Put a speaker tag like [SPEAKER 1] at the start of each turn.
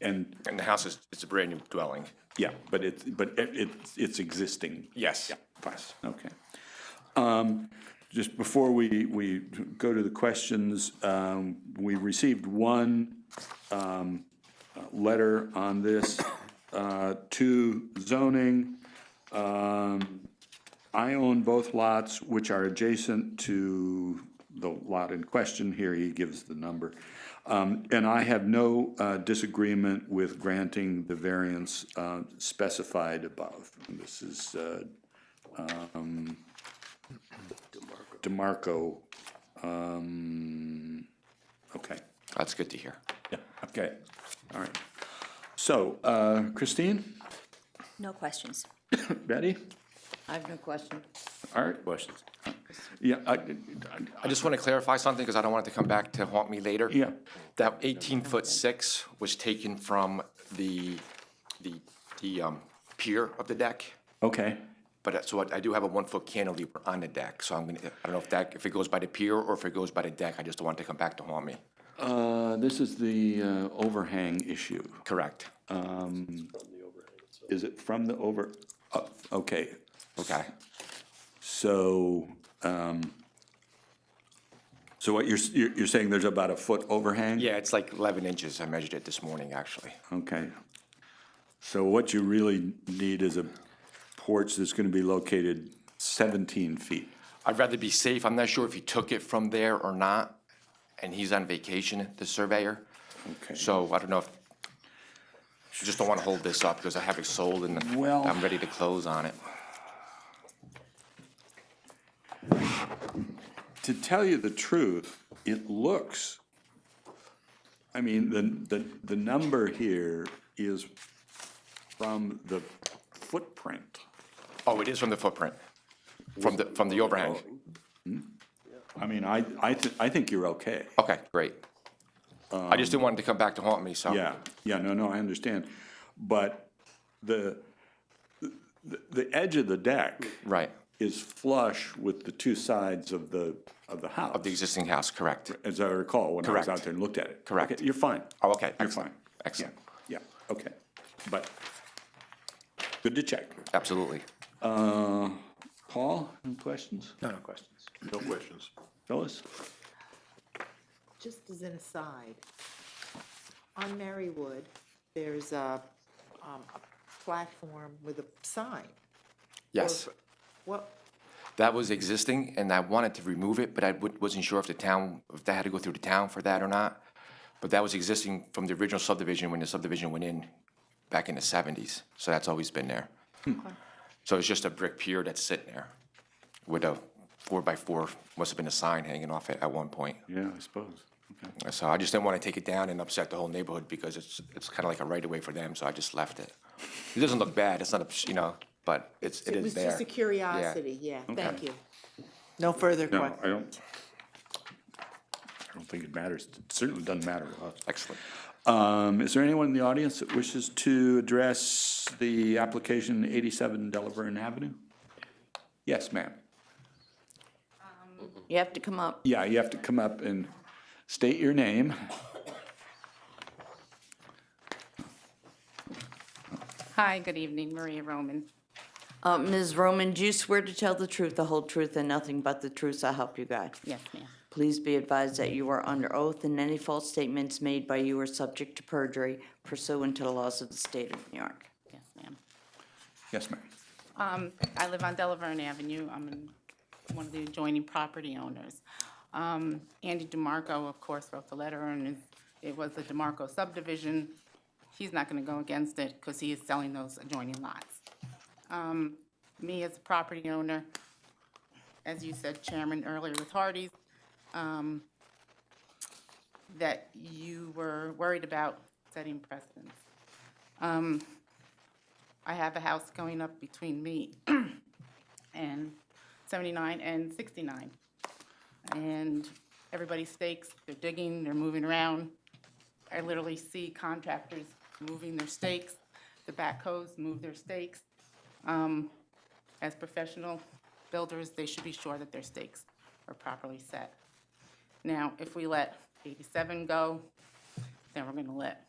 [SPEAKER 1] And,
[SPEAKER 2] And the house is, it's a brand new dwelling.
[SPEAKER 1] yeah, but it's, but it, it's- it's existing.
[SPEAKER 2] Yes.
[SPEAKER 1] Pass, okay. Um, Just before we, we go to the questions, um, we received one um, uh, letter on this uh, to zoning. Um, I own both lots, which are adjacent to the lot in question. Here, he gives the number. Um, And I have no uh, disagreement with granting the variance uh, specified above. And This is uh, DeMarco. um, Okay,
[SPEAKER 2] That's good to hear.
[SPEAKER 1] yeah, okay, all right. So uh, Christine,
[SPEAKER 3] No questions.
[SPEAKER 1] Betty,
[SPEAKER 4] I have no question.
[SPEAKER 1] Art?
[SPEAKER 2] Questions?
[SPEAKER 1] Yeah, I,
[SPEAKER 2] I just want to clarify something because I don't want it to come back to haunt me later.
[SPEAKER 1] Yeah.
[SPEAKER 2] That eighteen foot six was taken from the, the, the um, pier of the deck.
[SPEAKER 1] okay,
[SPEAKER 2] But uh, so I I do have a one foot cantilever on the deck, so I'm gonna, I don't know if that, if it goes by the pier or if it goes by the deck, I just don't want it to come back to haunt me.
[SPEAKER 1] Uh, this is the uh, overhang issue.
[SPEAKER 2] Correct.
[SPEAKER 1] Is it from the over, oh, okay,
[SPEAKER 2] Okay.
[SPEAKER 1] so, um, so what you're, s- you're you're saying there's about a foot overhang?
[SPEAKER 2] Yeah, it's like eleven inches. I measured it this morning, actually.
[SPEAKER 1] Okay. So what you really need is a porch that's gonna be located seventeen feet.
[SPEAKER 2] I'd rather be safe. I'm not sure if he took it from there or not, and he's on vacation, the surveyor.
[SPEAKER 1] Okay.
[SPEAKER 2] So I don't know if, just don't want to hold this up because I have it sold and
[SPEAKER 1] Well-
[SPEAKER 2] I'm ready to close on it.
[SPEAKER 1] To tell you the truth, it looks, I mean, the, the, the number here is from the footprint.
[SPEAKER 2] Oh, it is from the footprint, from the, from the overhang.
[SPEAKER 1] I mean, I, I, thi- I think you're okay.
[SPEAKER 2] Okay, great. I just didn't want it to come back to haunt me, so.
[SPEAKER 1] um, Yeah, yeah, no, no, I understand. But the, the, the edge of the deck
[SPEAKER 2] Right,
[SPEAKER 1] is flush with the two sides of the, of the house.
[SPEAKER 2] the existing house, correct.
[SPEAKER 1] as I recall, when I was
[SPEAKER 2] Correct.
[SPEAKER 1] out there and looked at it.
[SPEAKER 2] Correct.
[SPEAKER 1] Okay, You're fine.
[SPEAKER 2] Oh, okay,
[SPEAKER 1] You're
[SPEAKER 2] excellent,
[SPEAKER 1] fine.
[SPEAKER 2] excellent.
[SPEAKER 1] Yeah, yeah, okay. But good to check.
[SPEAKER 2] Absolutely.
[SPEAKER 1] Uh, Paul, any questions?
[SPEAKER 5] No, no questions.
[SPEAKER 6] No questions.
[SPEAKER 1] Phyllis?
[SPEAKER 4] Just as an aside, on Marywood, there's a, um, a platform with a sign.
[SPEAKER 2] Yes,
[SPEAKER 4] What,
[SPEAKER 2] that was existing and I wanted to remove it, but I wa- wasn't sure if the town, if that had to go through the town for that or not. But that was existing from the original subdivision when the subdivision went in back in the seventies, so that's always been there. So it's just a brick pier that's sitting there with a four by four, must have been a sign hanging off it at one point.
[SPEAKER 1] Yeah, I suppose. Okay.
[SPEAKER 2] So I just didn't want to take it down and upset the whole neighborhood because it's, it's kind of like a right of way for them, so I just left it. It doesn't look bad, it's not, a you know, but it's, it
[SPEAKER 4] it
[SPEAKER 2] is
[SPEAKER 4] was
[SPEAKER 2] there.
[SPEAKER 4] just a curiosity, yeah, thank you. No further
[SPEAKER 1] No, I
[SPEAKER 4] questions.
[SPEAKER 1] don't, I don't think it matters. It Certainly doesn't matter to us.
[SPEAKER 2] Excellent.
[SPEAKER 1] Um, is there anyone in the audience that wishes to address the application eighty-seven Delaware Avenue? Yes, ma'am.
[SPEAKER 4] You have to come up.
[SPEAKER 1] Yeah, you have to come up and state your name.
[SPEAKER 7] Hi, good evening, Maria Roman.
[SPEAKER 8] Uh, Ms. Roman, do you swear to tell the truth, the whole truth, and nothing but the truth, so help you God?
[SPEAKER 7] Yes, ma'am.
[SPEAKER 8] Please be advised that you are under oath, and any false statements made by you are subject to perjury pursuant to the laws of the state of New York.
[SPEAKER 7] Yes, ma'am.
[SPEAKER 1] Yes, ma'am.
[SPEAKER 7] Um, I live on Delaverne Avenue. I'm an- one of the adjoining property owners. Um, Andy DeMarco, of course, wrote the letter, and it- it was the DeMarco subdivision. He's not gonna go against it, because he is selling those adjoining lots. Um, me as a property owner, as you said, Chairman, earlier with Hardee's, um, that you were worried about setting precedents. Um, I have a house going up between me and 79 and 69. And everybody stakes, they're digging, they're moving around. I literally see contractors moving their stakes, the backhoes move their stakes. Um, As professional builders, they should be sure that their stakes are properly set. Now, if we let 87 go, then we're going to let